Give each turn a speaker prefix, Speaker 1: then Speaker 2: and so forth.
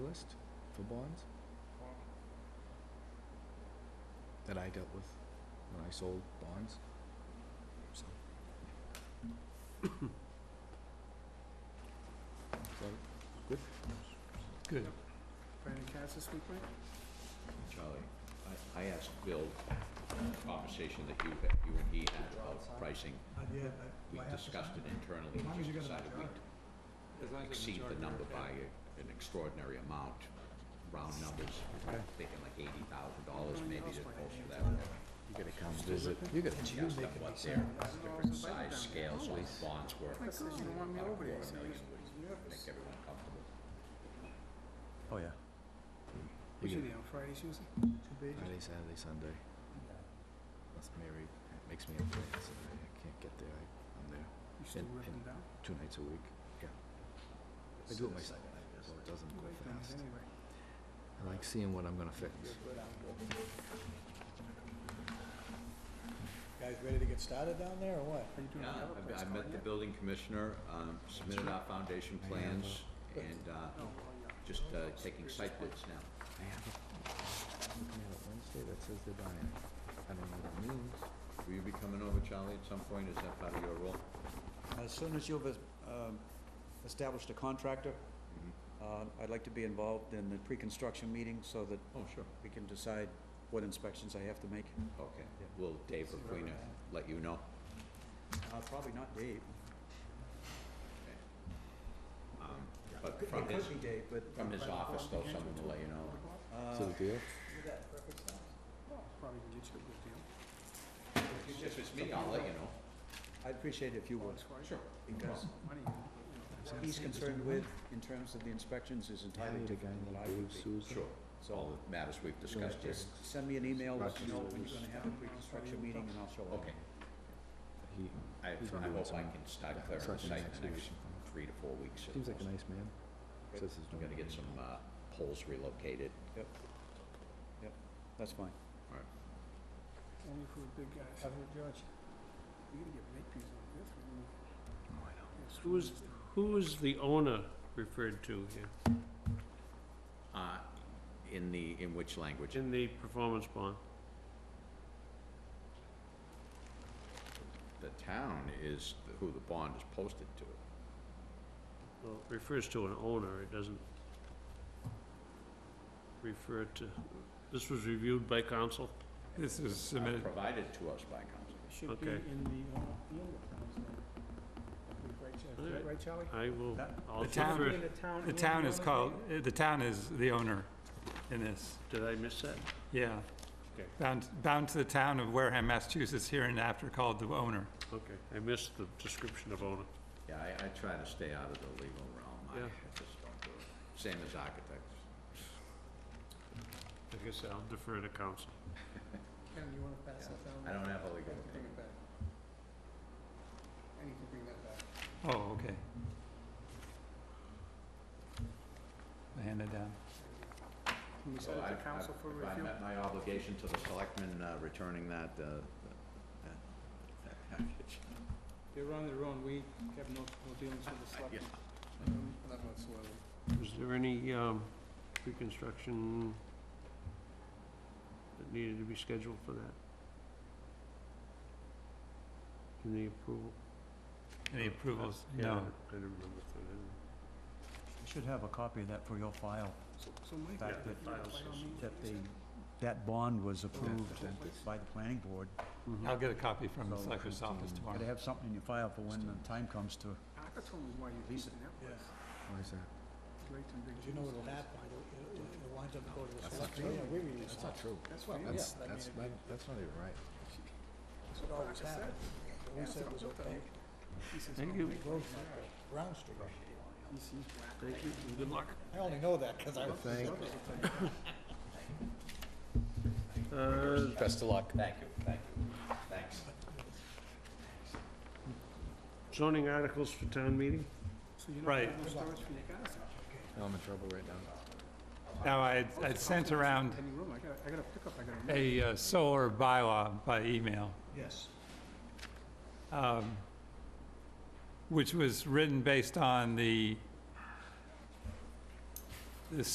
Speaker 1: municipal bonds that I dealt with when I sold bonds, so. Is that it? Good?
Speaker 2: Good.
Speaker 3: Brandon Cass this week, Mike?
Speaker 4: Charlie, I, I asked Bill, the conversation that you, that you and he had about pricing,
Speaker 2: Uh, Yeah.
Speaker 4: we discussed it internally,
Speaker 2: As long
Speaker 4: and
Speaker 2: as
Speaker 4: just
Speaker 2: you got a
Speaker 4: decided we'd
Speaker 2: majority.
Speaker 4: exceed the number by a- an extraordinary amount, round numbers,
Speaker 2: Okay.
Speaker 4: thinking like eighty thousand dollars
Speaker 3: Going
Speaker 4: maybe
Speaker 3: else
Speaker 4: to
Speaker 3: by
Speaker 4: post
Speaker 3: name.
Speaker 4: for that. one.
Speaker 1: You gotta come visit, you gotta
Speaker 4: She asked them what their different size scales of
Speaker 1: Always.
Speaker 4: bonds were.
Speaker 3: My God, you don't want me
Speaker 4: About a
Speaker 3: over there,
Speaker 4: quarter
Speaker 3: so you're
Speaker 4: million
Speaker 3: just-
Speaker 4: would
Speaker 3: you're nervous.
Speaker 4: Make everyone comfortable.
Speaker 2: Oh, yeah.
Speaker 3: What's your day on Fridays usually?
Speaker 1: Friday, Saturday, Sunday. That's married. It makes me upset. Saturday. I can't get there. I, I'm there
Speaker 3: You still
Speaker 1: And-
Speaker 3: ripping
Speaker 1: and-
Speaker 3: down?
Speaker 1: two nights a week. Yeah. I do it myself, so it doesn't
Speaker 3: You
Speaker 1: go
Speaker 3: like things
Speaker 1: fast.
Speaker 3: anyway.
Speaker 1: I like seeing what I'm gonna fix.
Speaker 2: Guys ready to get started down there or what?
Speaker 3: Are you doing the
Speaker 4: Yeah,
Speaker 3: other
Speaker 4: I've-
Speaker 3: place,
Speaker 4: I
Speaker 3: Colin,
Speaker 4: met the
Speaker 3: yet?
Speaker 4: building commissioner, um, submitted our foundation
Speaker 1: I have,
Speaker 4: plans, and uh,
Speaker 3: Oh, well, yeah.
Speaker 4: just uh, taking site bids now.
Speaker 1: I have a, looking at it Wednesday that says they're buying. it. I don't know what it means.
Speaker 4: Will you be coming over, Charlie, at some point? Is that part of your role?
Speaker 5: As soon as you've um, established a contractor,
Speaker 4: Mm-hmm.
Speaker 5: uh, I'd like to be involved in the pre-construction meeting so that
Speaker 4: Oh, sure.
Speaker 5: we can decide what inspections I have to make.
Speaker 4: Okay.
Speaker 5: Yeah.
Speaker 4: Will Dave Requena let you know?
Speaker 5: Uh, Probably not Dave.
Speaker 4: Um,
Speaker 5: It
Speaker 4: But
Speaker 5: could-
Speaker 4: from
Speaker 5: It
Speaker 4: his,
Speaker 5: could be Dave, but
Speaker 4: from his office, though, someone will let you know.
Speaker 5: uh,
Speaker 1: So the deal?
Speaker 3: Well, Probably can get you a good deal.
Speaker 4: If it's me, I'll let you know.
Speaker 5: I'd appreciate it if you would,
Speaker 3: As far as
Speaker 4: Sure.
Speaker 5: because
Speaker 3: money, you know,
Speaker 5: what he's concerned with in terms of the inspections is
Speaker 1: I
Speaker 5: entirely
Speaker 1: need a guy
Speaker 5: different than what I
Speaker 1: named
Speaker 5: would
Speaker 1: Dave
Speaker 5: be.
Speaker 1: Souza.
Speaker 4: Sure. All
Speaker 5: So
Speaker 4: the matters we've discussed here.
Speaker 5: just send me an email, let
Speaker 1: Roger
Speaker 5: me know when
Speaker 1: Souza.
Speaker 5: you're gonna have a pre-construction meeting and I'll show up.
Speaker 4: Okay.
Speaker 1: He
Speaker 4: I, I
Speaker 1: He's gonna do
Speaker 4: hope I
Speaker 1: some-
Speaker 4: can start
Speaker 1: yeah,
Speaker 4: clearing the
Speaker 1: starting
Speaker 4: site
Speaker 1: next
Speaker 4: in the next
Speaker 1: week.
Speaker 4: three to four weeks. at
Speaker 1: seems like a
Speaker 4: most.
Speaker 1: nice man. Says he's
Speaker 4: I'm gonna get some, uh, poles relocated.
Speaker 5: Yep. Yep, that's fine.
Speaker 3: Only for the big guys. You're
Speaker 2: George.
Speaker 3: gonna get big pieces like this. when you- Yes,
Speaker 6: Who is-
Speaker 3: Wednesday.
Speaker 6: Who is the owner referred to here
Speaker 4: Uh, in the, in which language?
Speaker 6: in the performance bond?
Speaker 4: The town is the- who the bond is posted to.
Speaker 6: Well, it refers to an owner, it doesn't refer to, this was reviewed by council?
Speaker 7: This is
Speaker 4: Uh,
Speaker 7: submitted,
Speaker 4: Provided to us by council.
Speaker 3: Should be
Speaker 6: Okay.
Speaker 3: in the, uh, handbook, Wednesday. Right, Char-
Speaker 6: All right.
Speaker 3: Right, Charlie?
Speaker 6: I will,
Speaker 5: That-
Speaker 6: I'll
Speaker 7: the town-
Speaker 6: defer,
Speaker 3: In town.
Speaker 7: the
Speaker 3: and
Speaker 7: town
Speaker 3: the
Speaker 7: is
Speaker 3: other
Speaker 7: called,
Speaker 3: thing?
Speaker 7: uh, the town is the owner in this,
Speaker 6: did I miss that?
Speaker 7: yeah.
Speaker 6: Okay.
Speaker 7: Bound, bound to the town of Wareham, Massachusetts, here and after called the owner.
Speaker 6: Okay, I missed the description of owner.
Speaker 4: Yeah, I, I try to stay out of the legal realm. I
Speaker 6: Yeah.
Speaker 4: I just don't do it. Same as architects.
Speaker 6: I guess I'll defer to council.
Speaker 3: Ken, you wanna pass that down?
Speaker 4: I don't have a legal
Speaker 3: Bring
Speaker 4: opinion.
Speaker 3: it back. And you can bring that back.
Speaker 7: Oh, okay. I hand it down.
Speaker 3: Can we
Speaker 4: So
Speaker 3: send it
Speaker 4: I-
Speaker 3: to council
Speaker 4: I-
Speaker 3: for
Speaker 4: If I
Speaker 3: review?
Speaker 4: met my obligation to the selectmen, uh, returning that, uh, that- that package.
Speaker 3: They're on their own, we have no, no dealings with the selectmen. Um, None whatsoever.
Speaker 6: Was there any, um, reconstruction that needed to be scheduled for that? In the approval?
Speaker 7: Any approvals?
Speaker 6: Yeah,
Speaker 7: No.
Speaker 6: I didn't remember if there was.
Speaker 5: You should have a copy of that for your file,
Speaker 3: So, so Mike,
Speaker 5: Back
Speaker 3: you
Speaker 5: to
Speaker 3: know, by
Speaker 6: files.
Speaker 3: all means,
Speaker 5: that
Speaker 3: what
Speaker 5: the,
Speaker 3: you said.
Speaker 5: that bond was approved by the planning board.
Speaker 7: I'll get a copy from the
Speaker 5: So,
Speaker 7: selector's
Speaker 5: Got
Speaker 7: office
Speaker 5: to
Speaker 7: tomorrow.
Speaker 5: have something in your file for when the time comes to,
Speaker 3: Parker told me why you're
Speaker 5: Lisa.
Speaker 3: keeping that place.
Speaker 1: Why is that?
Speaker 3: Leighton Big
Speaker 2: You know
Speaker 3: Cheese.
Speaker 2: what'll happen, it'll, it'll- it'll wind up going to the
Speaker 1: That's not
Speaker 2: selectmen.
Speaker 1: true.
Speaker 2: Yeah, we release
Speaker 1: That's
Speaker 2: that.
Speaker 1: not true.
Speaker 3: That's
Speaker 2: Well,
Speaker 3: what, yeah.
Speaker 1: That's,
Speaker 2: I
Speaker 1: that's,
Speaker 2: mean,
Speaker 1: not- that's not even right.
Speaker 2: That's what always happens. What We
Speaker 3: Yeah,
Speaker 2: said
Speaker 3: so
Speaker 2: was
Speaker 3: what the
Speaker 2: okay.
Speaker 3: heck? He says,
Speaker 6: Thank
Speaker 3: "Oh,
Speaker 6: you.
Speaker 3: Mike,
Speaker 2: Grove Street, Brown Street.
Speaker 3: he's- he's whack."
Speaker 6: Thank you, and good luck.
Speaker 2: I only know that because I was.
Speaker 1: Thank,
Speaker 6: Uh,
Speaker 4: Best of luck. Thank you, thank you. Thanks.
Speaker 6: zoning articles for town meeting?
Speaker 3: So you're not
Speaker 7: Right.
Speaker 3: gonna have storage for your cars now.
Speaker 1: no, I'm in trouble right now.
Speaker 7: Now, I, I sent around
Speaker 3: Any room, I got, I got a pickup, I got a.
Speaker 7: a uh, solar bylaw by email.
Speaker 5: yes.
Speaker 7: um, which was written based on the